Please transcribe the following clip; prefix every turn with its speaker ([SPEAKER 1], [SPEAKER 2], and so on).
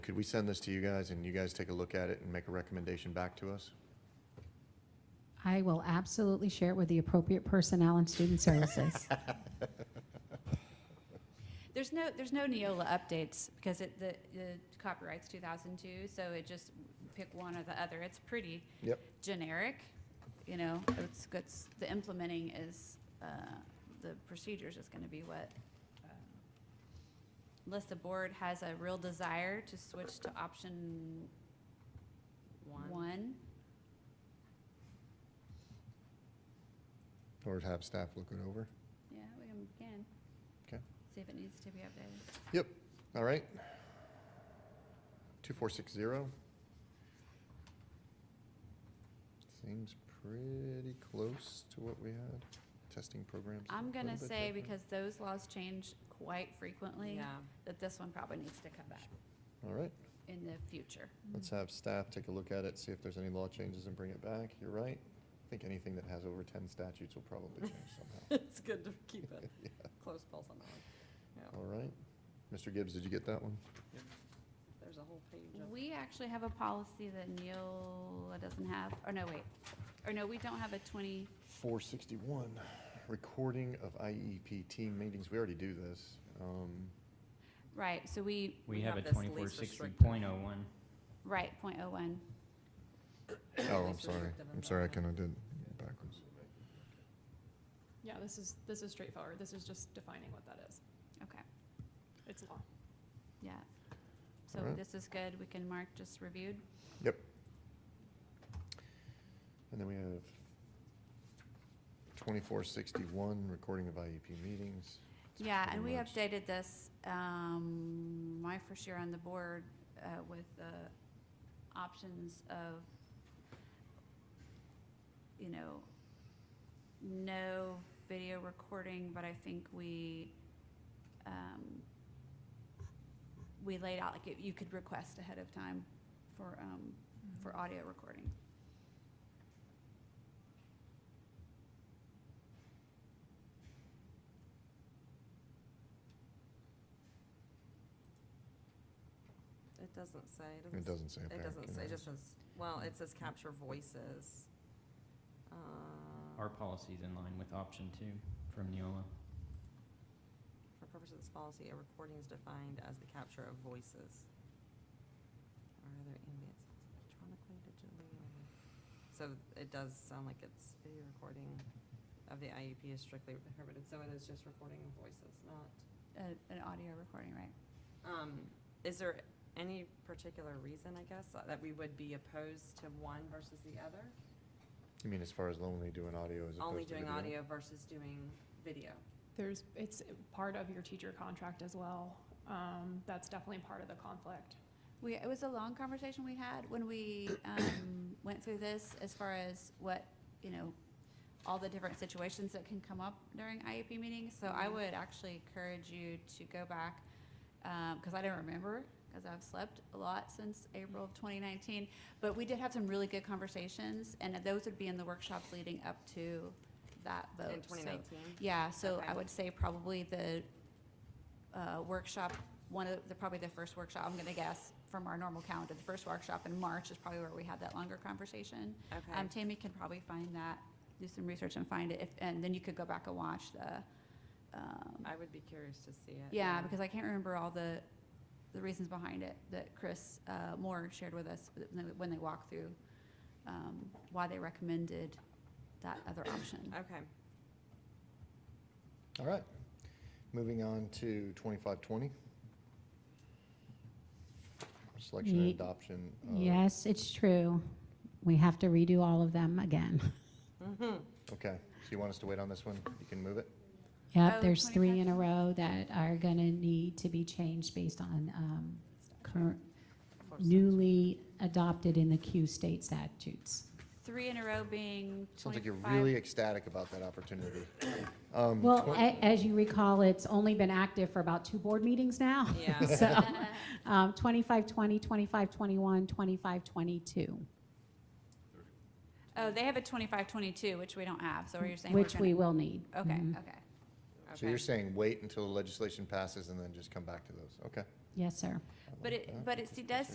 [SPEAKER 1] Could we send this to you guys and you guys take a look at it and make a recommendation back to us?
[SPEAKER 2] I will absolutely share it with the appropriate personnel and student services.
[SPEAKER 3] There's no, there's no Neola updates because it, the, the copyright's 2002, so it just pick one or the other. It's pretty
[SPEAKER 1] Yep.
[SPEAKER 3] generic, you know, it's, it's, the implementing is, uh, the procedures is gonna be what. um, Unless the board has a real desire to switch to option one.
[SPEAKER 1] Or have staff look it over?
[SPEAKER 3] Yeah, we can, can.
[SPEAKER 1] 'Kay.
[SPEAKER 3] See if it needs to be updated.
[SPEAKER 1] All right. 2460. Seems pretty close to what we had. Testing programs. a
[SPEAKER 3] I'm gonna
[SPEAKER 1] little bit
[SPEAKER 3] say
[SPEAKER 1] different.
[SPEAKER 3] because those laws change quite frequently,
[SPEAKER 4] Yeah,
[SPEAKER 3] that this one probably needs to come back
[SPEAKER 1] All right,
[SPEAKER 3] in the future.
[SPEAKER 1] let's have staff take a look at it, see if there's any law changes and bring it back. You're right. I think anything that has over 10 statutes will probably change somehow.
[SPEAKER 4] it's good to keep a close pulse on that one. Yeah,
[SPEAKER 1] All right. Mr. Gibbs, did you get that one?
[SPEAKER 4] there's a whole page of,
[SPEAKER 3] We actually have a policy that Neola doesn't have, or no, wait, or no, we don't have a twenty,
[SPEAKER 1] 461, recording of IEP team meetings. We already do this. Um,
[SPEAKER 3] right, so we,
[SPEAKER 4] We
[SPEAKER 5] We have
[SPEAKER 4] have
[SPEAKER 5] a
[SPEAKER 4] this least
[SPEAKER 5] twenty-four sixty point oh
[SPEAKER 4] restrictive.
[SPEAKER 5] one.
[SPEAKER 3] right, point oh one.
[SPEAKER 1] Oh, I'm
[SPEAKER 4] least
[SPEAKER 1] sorry.
[SPEAKER 4] restrictive
[SPEAKER 1] I'm sorry, I kind
[SPEAKER 4] environment.
[SPEAKER 1] of did backwards.
[SPEAKER 6] Yeah, this is, this is straightforward. This is just defining what that is.
[SPEAKER 3] Okay,
[SPEAKER 6] It's law.
[SPEAKER 3] yeah. So
[SPEAKER 1] Alright.
[SPEAKER 3] this is good, we can mark just reviewed.
[SPEAKER 1] And then we have 2461, recording of IEP meetings. It's
[SPEAKER 3] Yeah,
[SPEAKER 1] pretty
[SPEAKER 3] and we
[SPEAKER 1] much-
[SPEAKER 3] updated this, um, my first year on the board, uh, with the options of, you know, no video recording, but I think we, um, we laid out, like, you could request ahead of time for, um,
[SPEAKER 2] Mm.
[SPEAKER 3] for
[SPEAKER 1] Mm-hmm.
[SPEAKER 3] audio recording.
[SPEAKER 4] it doesn't say,
[SPEAKER 1] It doesn't say.
[SPEAKER 4] It
[SPEAKER 1] back,
[SPEAKER 4] doesn't
[SPEAKER 1] you
[SPEAKER 4] say,
[SPEAKER 1] know.
[SPEAKER 4] it just says, well, it says capture voices. Uh,
[SPEAKER 5] Our policy's in line with option two from Neola.
[SPEAKER 4] For purposes of this policy, a recording is defined as the capture of voices or other ambient sounds electronically, digitally, or with- so it does sound like it's video recording of the IEP is strictly prohibited, so it is just recording of voices, not,
[SPEAKER 3] Uh, an audio recording, right?
[SPEAKER 4] um, is there any particular reason, I guess, that we would be opposed to one versus the other?
[SPEAKER 1] You mean as far as only doing audio as opposed to
[SPEAKER 4] Only doing
[SPEAKER 1] video?
[SPEAKER 4] audio versus doing video?
[SPEAKER 6] There's, it's part of your teacher contract as well. Um, that's definitely part of the conflict.
[SPEAKER 3] We, it was a long conversation we had when we um, went through this as far as what, you know, all the different situations that can come up during IEP meetings. So I
[SPEAKER 4] Mhm.
[SPEAKER 3] would actually encourage you to go back, because I don't remember, because I've slept a lot since April of 2019. But we did have some really good conversations, and those would be in the workshops leading up to that vote.
[SPEAKER 4] In
[SPEAKER 3] Oh, So-
[SPEAKER 4] twenty nineteen?
[SPEAKER 3] yeah, so
[SPEAKER 4] Okay.
[SPEAKER 3] I would say probably the uh, workshop, one of, the probably the first workshop, I'm gonna guess, from our normal calendar, the first workshop in March is probably where we had that longer conversation.
[SPEAKER 4] Okay,
[SPEAKER 3] Um, Tammy can probably find that, do some research and find it, if, and then you could go back and watch the, um,
[SPEAKER 4] I would be curious to see it.
[SPEAKER 3] yeah, because I can't remember all the, the reasons behind it that Chris uh, Moore shared with us when they- when they walked through, um, why they recommended that other option.
[SPEAKER 4] Okay.
[SPEAKER 1] All right. Moving on to 2520. Selection and
[SPEAKER 2] Ye-
[SPEAKER 1] adoption. of-
[SPEAKER 2] Yes, it's true. We have to redo all of them again.
[SPEAKER 1] Okay, so you want us to wait on this one? You can move it?
[SPEAKER 2] Yep,
[SPEAKER 3] Oh,
[SPEAKER 2] there's three in a row that are gonna need to be changed based on, um, current, newly adopted in the Q state statutes.
[SPEAKER 3] Three in a row being
[SPEAKER 1] Sounds like you're
[SPEAKER 3] 25
[SPEAKER 1] really ecstatic about that opportunity. Um,
[SPEAKER 2] Well,
[SPEAKER 1] twen-
[SPEAKER 2] a- as you recall, it's only been active for about two board meetings now.
[SPEAKER 4] Yeah.
[SPEAKER 2] So, um, 2520, 2521, 2522,
[SPEAKER 3] Oh, they have a twenty-five, twenty-two, which we don't have, so you're saying we're
[SPEAKER 2] which we
[SPEAKER 3] gonna.
[SPEAKER 2] will need.
[SPEAKER 3] Okay,
[SPEAKER 2] Mhm.
[SPEAKER 3] okay.
[SPEAKER 1] So you're saying wait until the legislation passes and then just come back to those? Okay.
[SPEAKER 2] Yes, sir.
[SPEAKER 1] I like
[SPEAKER 3] But it,
[SPEAKER 1] that.
[SPEAKER 3] but it does